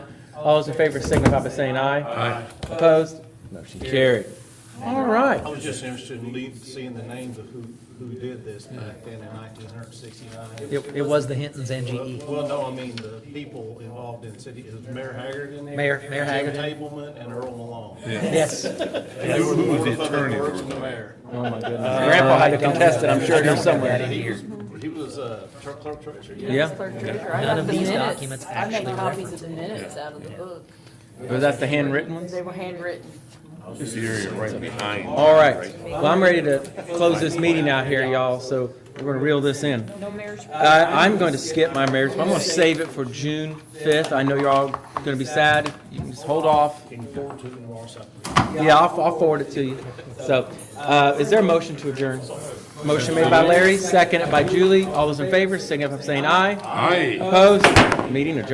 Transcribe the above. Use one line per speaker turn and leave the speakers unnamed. All those in favor signify by saying aye.
Aye.
Opposed? Motion carried. All right.
I was just interested in le- seeing the names of who, who did this back then in nineteen hundred sixty-nine.
It, it was the Hinton's E. NGE.
Well, no, I mean, the people involved in city, it was Mayor Haggard in there?
Mayor- Mayor Haggard.
Jim Tableman and Earl Malone.
Yes.
They were the ones that worked in the mayor.
Oh, my goodness. Grandpa had to contest it, I'm sure, here somewhere.
He was, he was, uh, tr- clerk treasurer.
Yeah,
None of these documents actually I made copies of the minutes out of the book.
was that the handwritten ones?
They were handwritten.
This area right behind.
All right. Well, I'm ready to close this meeting out here, y'all, so we're gonna reel this in.
No marriage.
I, I'm going to skip my marriage, but I'm going to save it for June 5th. I know you're all going to be sad. You can just hold off.
Can you forward to them or something?
Yeah, I'll, I'll forward it to you. So, uh, is there a motion to adjourn? Motion made by Larry, seconded by Julie. All those in favor, signify by saying aye.
Aye.
Opposed? Meeting adjourned.